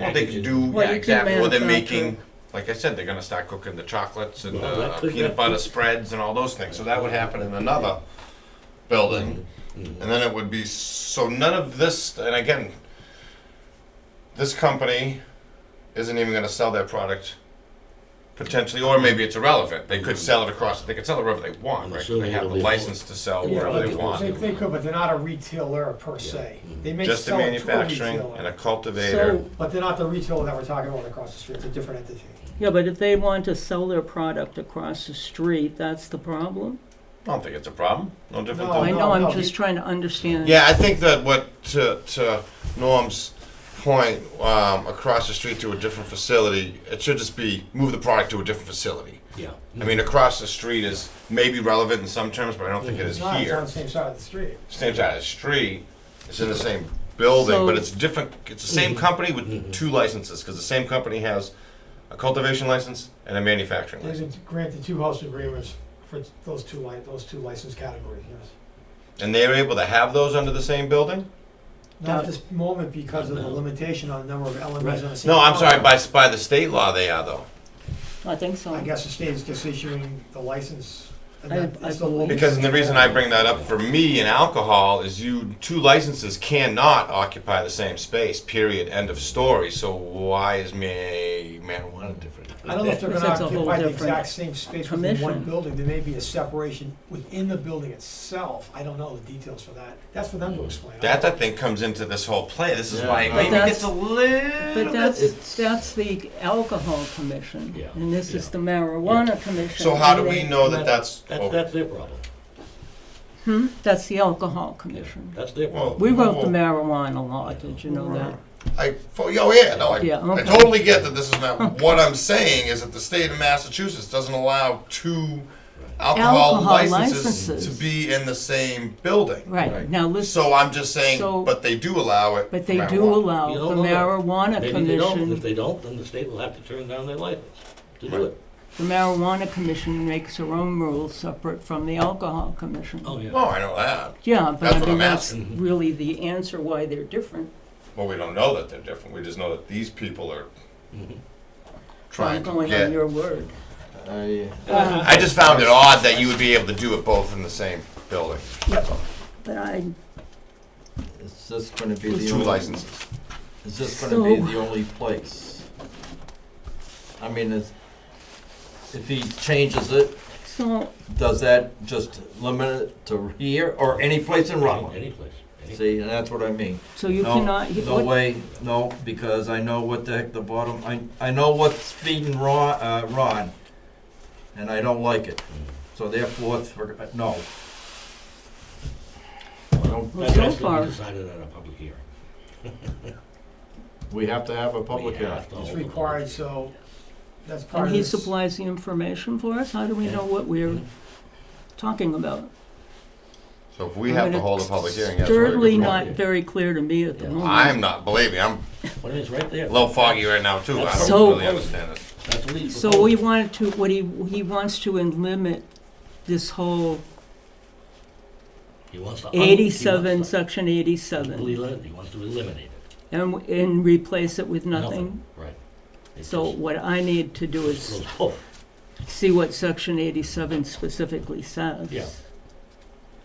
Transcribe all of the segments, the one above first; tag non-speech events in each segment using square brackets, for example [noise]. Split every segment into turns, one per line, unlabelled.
Well, they can
packages.
do,
Well,
yeah,
you can
exactly, Well, they're
manufacture
making, like I said, they're gonna start cooking the chocolates and
Well,
the
that could
peanut
happen.
butter spreads and all those things, so that would happen in another building. And then it would be, so none of this, and again, this company isn't even gonna sell their product potentially, or maybe it's irrelevant, they could sell it across, they could sell it wherever they want,
I'm
right? 'Cause
assuming
They have
it'll
the
be-
license to sell
Yeah,
wherever they
it'll
want. Mm-hmm.
They, they could, but they're not a retailer per se. They may
Just the
sell it to a
manufacturing and a
retailer,
cultivator.
So-
but they're not the retailer that we're talking about across the street. It's a different entity.
Yeah, but if they want to sell their product across the street, that's the problem?
I don't think it's a problem, Oh, no different
No,
than.
I know, I'm
no,
just
be-
trying to understand.
Yeah, I think that what to, to Norm's point um, across the street to a different facility, it should just be move the product to a different facility.
Yeah.
I mean, across the street is maybe relevant in some terms, but I don't think it is
It's not, it's on
here.
the same side of the street.
Same side of the street, it's in the same building, but
So-
it's different. It's the same company with two licenses because the same company has a cultivation license and a manufacturing
They've
license,
been granted two host agreements for those two li, those two license categories, yes.
and they are able to have those under the same building.
Not at this moment because of the limitation on the number of elements on the same.
No, I'm sorry.
product.
By by the state law, they are though.
I think so.
I guess the state is just issuing the license. and
I-
that-
I
it's the law.
Because the reason I bring that up for me and alcohol is you two licenses cannot occupy the same space. Period. End of story. So why is ma- marijuana different?
I don't know if they're gonna
That's a whole
occupy the
different
exact same space within one
commission.
building, there may be a separation within the building itself, I don't know the details for that, that's for
Hmm.
them to explain.
That I think comes into this whole play. This is why it
Yeah.
maybe
But that's-
gets a little.
But
it's-
that's, that's the alcohol commission.
Yeah,
And this is
yeah.
the marijuana commission.
so how
and
do we
they-
know that that's?
That's, that's their problem.
Hmm? That's the alcohol commission.
That's their
Well,
problem.
We wrote the
well,
marijuana law, did you know that?
I, oh yeah, no, I,
Yeah,
I
okay.
totally get that this is not,
[laughs]
what I'm saying is that the state of Massachusetts doesn't allow two alcohol
Alcohol
licenses
licenses.
to be in the same building.
Right, now listen,
So I'm just saying,
So-
but they do allow it.
but they
no matter
do
what.
allow
You
the
don't know that.
marijuana
Maybe they don't. If
commission,
they don't, then the state will have to turn down their license to do
Right.
it.
the marijuana commission makes their own rules separate from the alcohol commission.
Oh, yeah.
Oh, I know that.
Yeah, but
That's
I
what
mean,
I'm [laughs]
that's
asking.
really the answer why they're different.
Well, we don't know that they're different. We just know that these people are
Mhm.
I'm
trying to
going
get.
on your word.
I,
Uh-huh.
Uh,
I just found it odd that you would be able to do it both in the same building.
But I,
is this gonna be the
Two
only?
licenses.
Is this gonna be
So-
the only place? I mean, is, if he changes it,
so,
does that just limit it to here or any place in
Any,
Rutland?
any place. Any-
See, and that's what I mean.
so you
No,
cannot,
No
what-
way, no, because I know what the heck the bottom, I, I know what's feeding Ron, uh, Ron, and I don't like it.
Mm.
So therefore, it's for, uh, no. I don't-
Well,
That
so
has to
far-
be decided at a public hearing.
We have to have a public
We
hearing.
have to
It's
hold a public
required,
hearing.
so that's part
and
of
uh, he
this.
supplies the information for us, how do we know what we're talking about?
So if we
I
have
mean,
to
it's
hold a public hearing, that's where it
Certainly
gets
not
wrong.
very clear to me at the
Yeah.
moment.
I'm not, believe me, I'm
Well, it's right there.
a little foggy right now too. I
So-
don't really understand it.
That's what he's
So we wanted to, what he, he wants to en- limit this whole
He wants to. un- Um, he wants
eighty-seven,
to
section eighty-seven,
elimi- He wants to eliminate it.
and, w- and replace it with nothing.
Right. It
So
just
what I need to
[laughs]
do is
goes off.
see what section eighty-seven specifically says.
Yeah.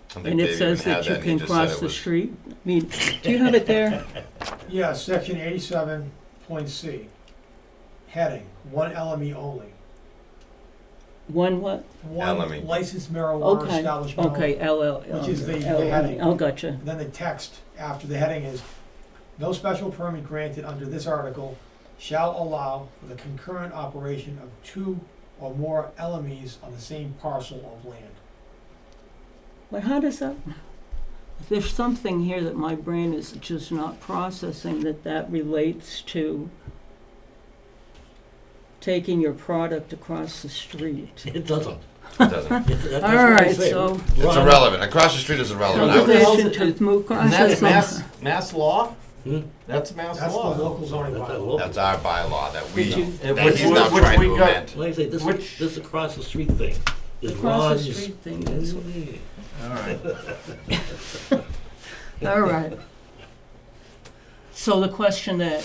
I think
And
Dave
it
even
says
had
that you
and he
can
just said
cross
it
the
was-
street. I mean, do you have
[laughs]
it there?
Yeah, section eighty-seven point C, heading, one LME only,
One what?
LME.
one licensed marijuana
Okay,
establishment only.
okay, LL.
Which is the- the heading.
Oh, gotcha.
Then the text after the heading is, no special permit granted under this article shall allow for the concurrent operation of two or more LMEs on the same parcel of land.
But how does that, there's something here that my brain is just not processing that that relates to taking your product across the street.
It doesn't.
It
[laughs]
It-
doesn't.
that- that's
All
what I'm
right,
saying.
so
It's
Ron-
irrelevant. Across the street is irrelevant. Oh, I would-
Cultivate-
conservation to move
And that's
across.
mass, mass law?
Hmm?
That's mass
That's the
law.
local zoning
That's a
bylaw.
local-
That's our bylaw that we,
Did you-
And
that
which-
he's not
which
trying
we
to
got-
amend.
Like I say, this,
Which-
this across the street thing is
Across
Ron's.
the street thing is,
All right.
all right. So the question that